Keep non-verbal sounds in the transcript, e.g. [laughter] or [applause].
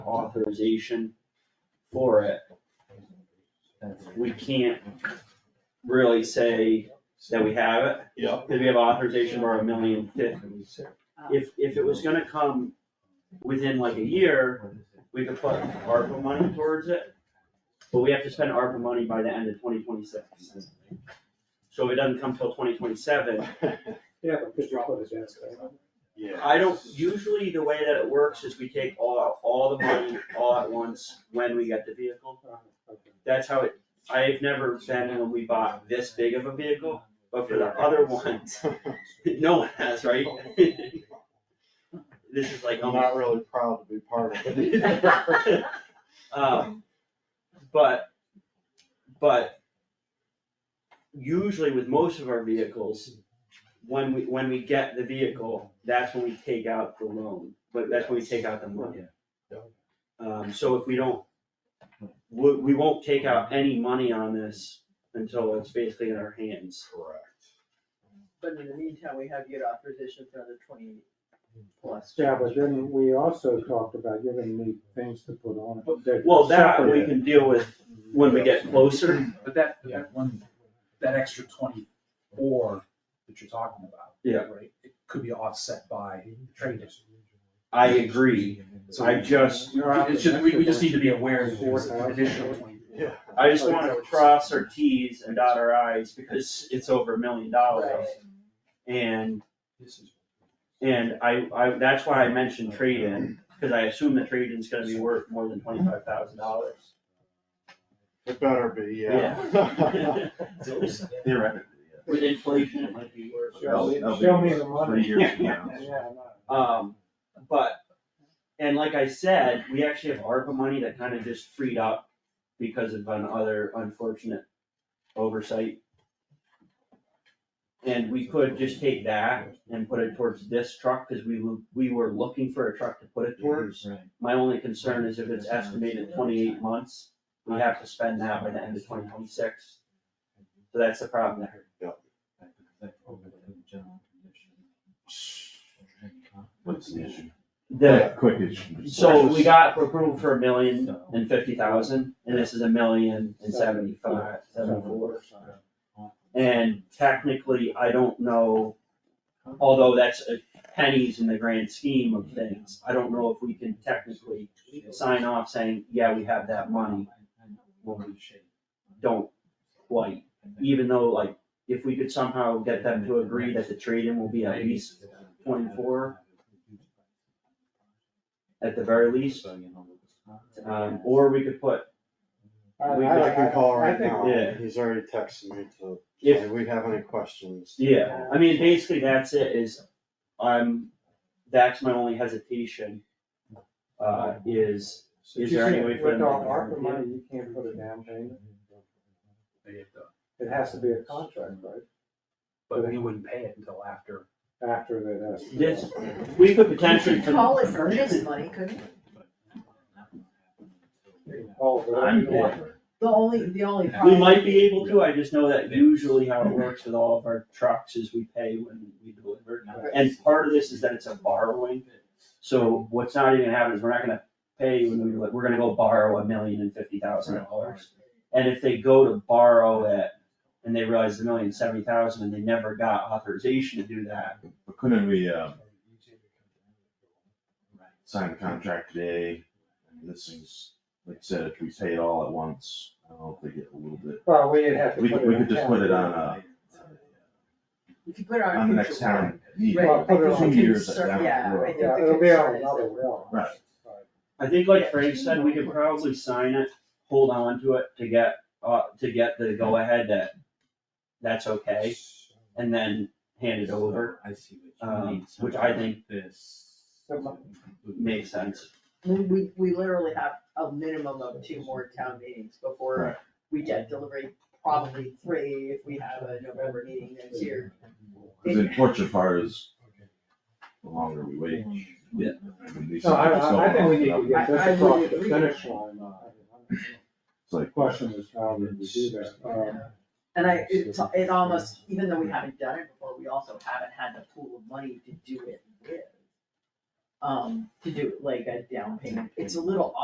authorization for it, we can't really say that we have it, Yeah. because we have authorization for a million fifty. Oh. If, if it was gonna come within like a year, we could put ARPA money towards it, but we have to spend ARPA money by the end of twenty twenty-six. So if it doesn't come till twenty twenty-seven, Yeah, but just drop it as yes, right? Yeah. I don't, [laughs] usually the way that it works is we take all, all the money all at once when we get the vehicle. Okay. That's how it, I've never been when we bought this big of a vehicle, but for the other [laughs] ones, [laughs] no one has, right? [laughs] This is like, I'm um, not really proud to be part of [laughs] it. um, but, but usually with most of our vehicles, when we, when we get the vehicle, that's when we take out the loan, but that's when we take out the money. Um, so if we don't, we, we won't take out any money on this until it's basically in our hands. Correct. But in the meantime, we have your authorization for another twenty plus. Yeah, but then we also talked about giving me things to put on it. that Well, that we separate it. can deal with when we get closer. But that, that one, that extra twenty-four that you're talking about. Yeah. Right, it could be offset by trade I agree. So I just, It's just, we, we just need to be aware that there's an additional Yeah. twenty-four. I just wanna cross our Ts and dot our Is because it's over a million dollars. And, and I, I, that's why I mentioned trade-in, cause I assume that trade-in's gonna be worth more than twenty-five thousand dollars. It better be, [laughs] yeah. Theoretically, [laughs] With inflation, it might be worth. Show me- That'll be show me the money. Three years from [laughs] now. Yeah, I know. Um, but, and like I said, we actually have ARPA money that kind of just freed up because of another unfortunate oversight. And we could just take that and put it towards this truck, cause we were, we were looking for a truck to put it towards. Right. My only concern is if it's estimated twenty-eight months, we have to spend that by the end of twenty twenty-six. So that's the problem there. What's the issue? The, Quick issue. So we got approval for a million and fifty thousand, and this is a million and seventy-five, seventy-four. And technically, I don't know, although that's uh, pennies in the grand scheme of things, I don't know if we can technically sign off saying, yeah, we have that money. When we don't quite, even though like, if we could somehow get them to agree that the trade-in will be at least twenty-four at the very least. Um, or we could put, I- We- I- I can call I right think- now, Yeah. he's already texted me to, If- do we have any questions? yeah, I mean, basically that's it, is, I'm, that's my only hesitation. Uh, is, is there any way for them? With to- our ARPA money, you can't put a down payment. It has to be a contract, right? But we wouldn't pay it until after. After that. has to be- This, we could potentially. You could call it earnest money, couldn't you? Oh, but I'm- The only, the only [laughs] problem. We might be able to, I just know that usually how it works with all of our trucks is we pay when we deliver. And part of this is that it's a borrowing, so what's not even happening is we're not gonna pay when we, we're gonna go borrow a million and fifty thousand dollars. And if they go to borrow it and they realize the million seventy thousand and they never got authorization to do that, But Couldn't we, uh, sign a contract today? I mean, This is, like I said, if we pay it all at once, I hope they get a little bit, Well, we'd have to. we put could, it we in could just put it on, town. uh, If you put it on. on the next future warrant. town. meeting. Well, Right, I put it think on Two the years concern- down the yeah, I road. think the Yeah, it'll be on concern is another that- well. Right. I think like Frank said, we could probably sign it, hold on to it to get, uh, to get the go ahead that that's okay. And then hand it over, I see what you um, mean. which I think This. makes sense. We, we, we literally have a minimum of two more town meetings before Right. we get delivery, probably three if we have a November meeting next year. Cause the unfortunate part is, the longer we wait. Yeah. It's No, I, I, I think we need to get I- I this across would the agree. finish line. The It's like, Question is how would we do that? Um, And I, it, it almost, even though we haven't done it before, we also haven't had the pool of money to do it with. Um, to do like a down payment, it's a little